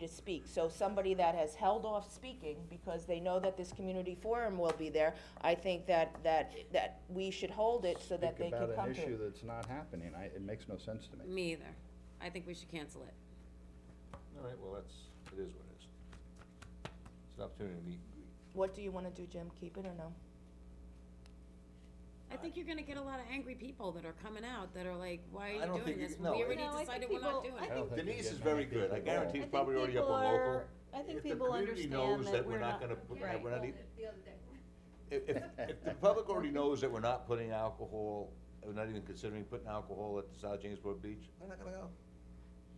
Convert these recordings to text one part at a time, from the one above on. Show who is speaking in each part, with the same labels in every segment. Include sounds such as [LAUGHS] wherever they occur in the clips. Speaker 1: to speak. So somebody that has held off speaking because they know that this community forum will be there, I think that, that, that we should hold it so that they
Speaker 2: Think
Speaker 1: can
Speaker 2: about
Speaker 1: come
Speaker 2: an
Speaker 1: to
Speaker 2: issue
Speaker 1: it.
Speaker 2: that's not happening, I, it makes no sense to me.
Speaker 3: Me either. I think we should cancel it.
Speaker 4: All right, well, that's, it is what it is. It's an opportunity to meet and greet.
Speaker 1: What do you wanna do, Jim? Keep it or no?
Speaker 3: I think you're gonna get a lot of angry people that are coming out that are like, why are
Speaker 4: I
Speaker 3: you
Speaker 4: don't
Speaker 3: doing
Speaker 4: think you-
Speaker 3: this?
Speaker 4: no,
Speaker 3: We
Speaker 4: it-
Speaker 3: already
Speaker 5: No, I think
Speaker 3: decided we're not
Speaker 5: people-
Speaker 3: doing
Speaker 5: I
Speaker 3: it.
Speaker 2: I don't think you
Speaker 4: Denise
Speaker 2: get
Speaker 4: is very
Speaker 2: many
Speaker 4: good, I
Speaker 2: people at all.
Speaker 4: guarantee
Speaker 5: I
Speaker 4: she's
Speaker 5: think
Speaker 4: probably already up
Speaker 5: people
Speaker 4: on local.
Speaker 5: are- I think people understand that we're not-
Speaker 4: If the community knows that we're not gonna,
Speaker 5: Right.
Speaker 4: that we're not, e- if, if, if the public already knows that we're not putting alcohol, we're not even considering putting alcohol at the South Jamesport Beach, they're not gonna go.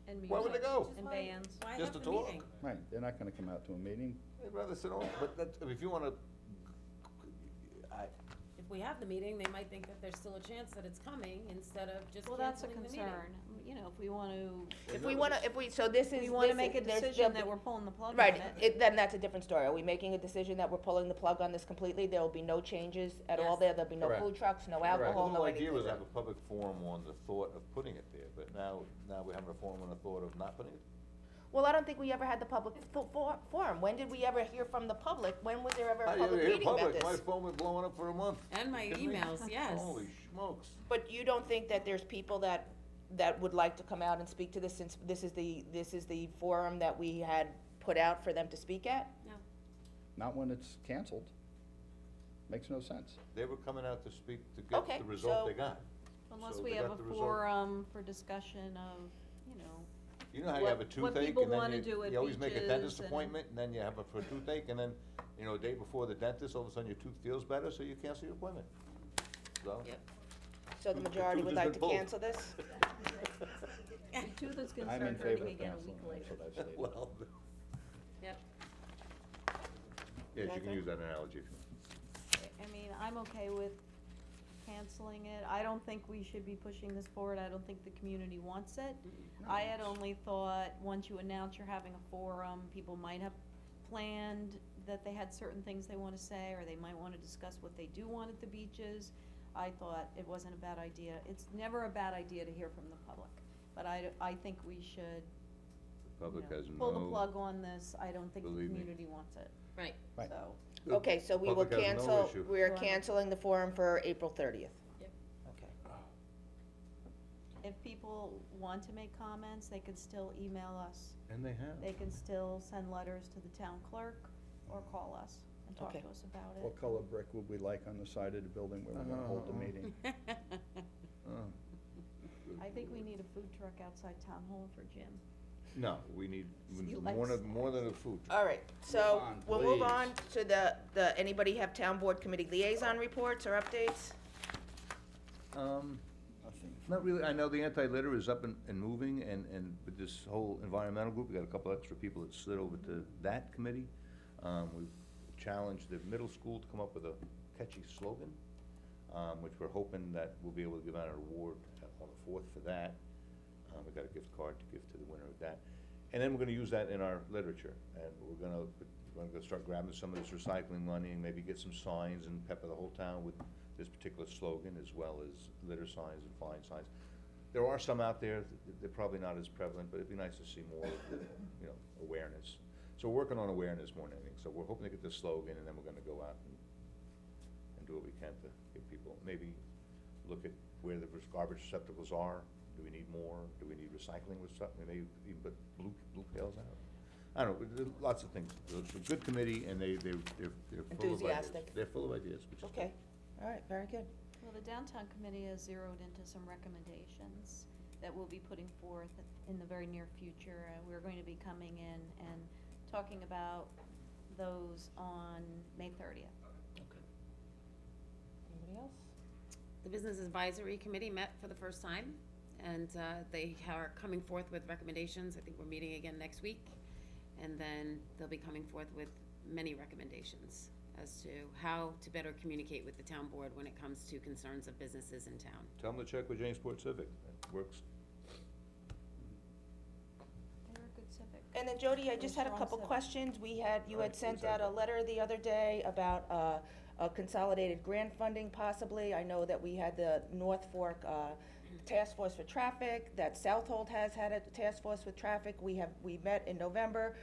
Speaker 5: And
Speaker 4: Why would they
Speaker 5: music
Speaker 4: go?
Speaker 5: And bands.
Speaker 3: Why have
Speaker 4: Just to
Speaker 3: the
Speaker 4: talk.
Speaker 3: meeting?
Speaker 2: Right, they're not gonna come out to a meeting,
Speaker 4: They'd rather sit home, but that, if you wanna, I,
Speaker 3: If we have the meeting, they might think that there's still a chance that it's coming instead of just
Speaker 5: Well, that's a
Speaker 3: canceling the meeting. [LAUGHS]
Speaker 5: concern, Um, you know, if we want to,
Speaker 1: If we wanna, if we, so this is.
Speaker 5: we want
Speaker 1: this-
Speaker 5: to make a
Speaker 1: there's-
Speaker 5: decision
Speaker 1: there'll
Speaker 5: that
Speaker 1: be-
Speaker 5: we're pulling the plug on
Speaker 1: Right,
Speaker 5: it.
Speaker 1: it, then that's a different story. Are we making a decision that we're pulling the plug on this completely? There will be no changes at all
Speaker 3: Yes.
Speaker 1: there? There'll be no
Speaker 2: Correct.
Speaker 1: food trucks, no
Speaker 2: Correct.
Speaker 4: The
Speaker 1: alcohol,
Speaker 4: whole
Speaker 1: no
Speaker 4: idea
Speaker 1: anything?
Speaker 4: was have a public forum on the thought of putting it there, but now, now we're having a forum on the thought of not putting it.
Speaker 1: Well, I don't think we ever had the public fo- for- forum. When did we ever hear from the public? When was there ever
Speaker 4: I
Speaker 1: a
Speaker 4: didn't
Speaker 1: public
Speaker 4: hear
Speaker 1: meeting about
Speaker 4: public.
Speaker 1: this?
Speaker 4: My phone was blowing up for a month.
Speaker 3: And my
Speaker 4: Kidding me?
Speaker 3: emails, yes.
Speaker 4: Holy smokes.
Speaker 1: But you don't think that there's people that, that would like to come out and speak to this, since this is the, this is the forum that we had put out for them to speak at?
Speaker 3: No.
Speaker 2: not when it's canceled. Makes no sense.
Speaker 4: They were coming out to speak to
Speaker 1: Okay,
Speaker 4: get the result they
Speaker 1: so-
Speaker 4: got.
Speaker 5: Unless
Speaker 4: So
Speaker 5: we
Speaker 4: they
Speaker 5: have
Speaker 4: got
Speaker 5: a
Speaker 4: the result.
Speaker 5: forum for discussion of, you know,
Speaker 4: You know how you have a
Speaker 5: What- what
Speaker 4: toothache
Speaker 5: people
Speaker 4: and then
Speaker 5: wanna do
Speaker 4: you,
Speaker 5: at
Speaker 4: you always make a
Speaker 5: beaches
Speaker 4: dentist
Speaker 5: and-
Speaker 4: appointment and then you have a, for a toothache and then, you know, a day before the dentist, all of a sudden your tooth feels better, so you cancel your appointment. So.
Speaker 3: Yep.
Speaker 4: [LAUGHS]
Speaker 1: So the
Speaker 4: Who- who
Speaker 1: majority would
Speaker 4: does
Speaker 1: like
Speaker 4: it
Speaker 1: to
Speaker 4: both?
Speaker 1: cancel this?
Speaker 5: your tooth is going to
Speaker 2: I'm in
Speaker 5: start
Speaker 2: favor
Speaker 5: hurting
Speaker 2: of
Speaker 5: again a
Speaker 2: canceling,
Speaker 5: week
Speaker 2: that's
Speaker 5: later.
Speaker 2: what I've stated.
Speaker 4: [LAUGHS] [LAUGHS] Well.
Speaker 3: Yep.
Speaker 4: Yes, you
Speaker 1: Okay.
Speaker 4: can use that analogy. if you want.
Speaker 5: I mean, I'm okay with canceling it. I don't think we should be pushing this forward. I don't think the community wants it. I had only thought, once you announce you're having a forum, people might have planned that they had certain things they wanna say, or they might wanna discuss what they do want at the beaches. I thought it wasn't a bad idea. It's never a bad idea to hear from the public, but I, I think we should,
Speaker 4: The
Speaker 5: you
Speaker 4: public
Speaker 5: know,
Speaker 4: has no.
Speaker 5: pull the plug on this. I don't think the
Speaker 4: Believe me.
Speaker 5: community wants it,
Speaker 3: Right.
Speaker 5: so.
Speaker 2: Right.
Speaker 4: The
Speaker 1: Okay, so we will
Speaker 4: public has no
Speaker 1: cancel,
Speaker 4: issue.
Speaker 1: we are
Speaker 5: Go on.
Speaker 1: canceling the forum for April thirtieth.
Speaker 3: Yep.
Speaker 1: Okay.
Speaker 5: If people want to make comments, they can still email us.
Speaker 4: And they have.
Speaker 5: They can still send letters to the town clerk or call us and talk to
Speaker 1: Okay.
Speaker 5: us about it.
Speaker 2: What color brick would we like on the side of the building where we're gonna hold the
Speaker 4: [LAUGHS]
Speaker 2: meeting?
Speaker 3: [LAUGHS]
Speaker 4: Oh.
Speaker 5: I think we need a food truck outside town hall for Jim.
Speaker 4: No, we need
Speaker 5: You like
Speaker 4: more than, more than a food truck.
Speaker 1: All right, so
Speaker 2: on,
Speaker 1: we'll move
Speaker 2: please.
Speaker 1: on to the, the, anybody have town board committee liaison reports or updates?
Speaker 4: Um,
Speaker 2: Nothing.
Speaker 4: not really, I know the anti-litter is up and, and moving, and, and with this whole environmental group, we got a couple extra people that slid over to that committee. Um, we've challenged the middle school to come up with a catchy slogan, um, which we're hoping that we'll be able to give out an award uh, on the fourth for that. Um, we got a gift card to give to the winner of that. And then we're gonna use that in our literature, and we're gonna, we're gonna start grabbing some of this recycling money and maybe get some signs and pepper the whole town with this particular slogan, as well as litter signs and flying signs. There are some out there, th- they're probably not as prevalent, but it'd be nice to see more, of the, you know, awareness. So we're working on awareness more than anything, so we're hoping to get the slogan, and then we're gonna go out and, and do what we can to get people, maybe look at where the garbage receptacles are, do we need more, do we need recycling or something, maybe even put blue, blue pails out? I don't know, there are lots of things, it's a good committee, and they, they, they're, they're full of ideas.
Speaker 1: Enthusiastic.
Speaker 4: They're full of ideas, which is
Speaker 1: Okay,
Speaker 4: good.
Speaker 1: all right, very good.
Speaker 5: Well, the downtown committee has zeroed into some recommendations that we'll be putting forth in the very near future. Uh, We're going to be coming in and talking about those on May thirtieth.
Speaker 1: Anybody else?
Speaker 3: The Business Advisory Committee met for the first time, and uh, they are coming forth with recommendations. I think we're meeting again next week. And then they'll be coming forth with many recommendations as to how to better communicate with the town board when it comes to concerns of businesses in town.
Speaker 4: Tell them to check with Jamesport Civic, it works.
Speaker 5: They're a good civic.
Speaker 1: And then Jody, I just had a
Speaker 5: Wrong
Speaker 1: couple
Speaker 5: seven.
Speaker 1: questions. We had, you had
Speaker 4: Right,
Speaker 1: sent out
Speaker 4: exactly.
Speaker 1: a letter the other day about, uh, uh, consolidated grant funding possibly. I know that we had the North Fork, uh, task force for traffic, that Southold has had a task force with traffic, we have, we met in November,